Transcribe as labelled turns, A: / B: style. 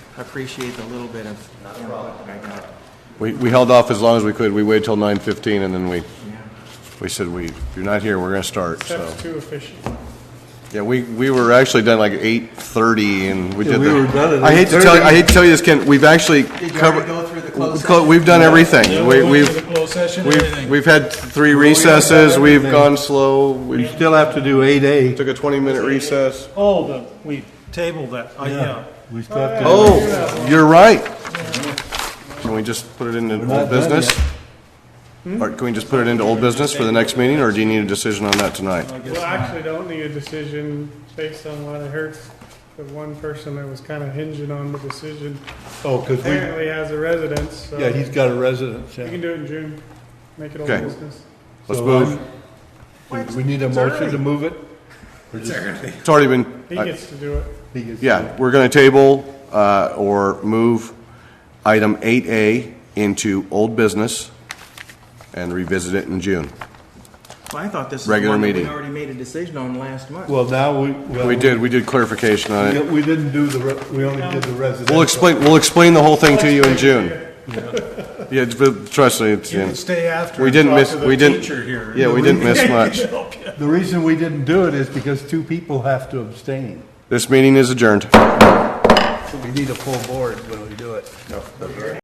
A: appreciate the little bit of input that I got.
B: We, we held off as long as we could. We waited till nine fifteen and then we, we said, we, if you're not here, we're gonna start, so.
C: That's too efficient.
B: Yeah, we, we were actually done like eight thirty and we
D: Yeah,
B: did
D: we
B: the-
D: were done at
B: I hate to tell, you-
D: 8:30.
B: I hate to tell you this, Ken, we've actually
A: Did you
B: covered.
A: already go through the
B: we
A: closed
B: clo-
A: session?
B: We've done
C: Yeah,
B: everything.
C: we
B: We,
C: went to
B: we've,
C: the closed session,
B: we've,
C: everything.
B: we've had three recesses, we've
D: everything.
B: gone slow, we
D: We still have to do eight A.
B: took a twenty-minute recess.
C: Oh, the, we tabled that, Oh, yeah.
D: We still have to.
B: Oh, you're right. Can we just put it into
D: not
B: old
D: done
B: business?
C: Hmm?
B: Or can we just put it into old business for the next meeting, or do you need a decision on that tonight?
E: Well, I actually don't need a decision based on what I heard. The one person that was kind of hinging on the decision
D: Oh, because we,
E: apparently has a residence, so
D: yeah,
E: we
D: he's got a residence, yeah.
E: can do it in June, make it all
B: Okay.
E: business.
B: Let's
D: So,
C: um,
B: move.
D: um, We need a motion to move it?
B: It's already been,
E: He
B: I-
E: gets to do it.
D: He gets-
B: yeah, we're going to table uh, or move item 8A into old business and revisit it in June.
A: Well, I thought this is the
B: Regular
A: one that we
B: meeting.
A: already made a decision on last month.
D: Well, now we. well,
B: We did, we did clarification on
D: We
B: it.
D: we didn't do the, re- we only did the residential.
B: We'll explain, we'll explain the whole thing to you in June. Yeah, but trust me, it's,
C: You can stay after
B: we
C: and
B: didn't
C: talk
B: miss,
C: to the
B: we didn't.
C: teacher here.
B: Yeah, we didn't miss much.
D: The reason we didn't do it is because two people have to abstain.
B: This meeting is adjourned.
D: We need a full board when we do it.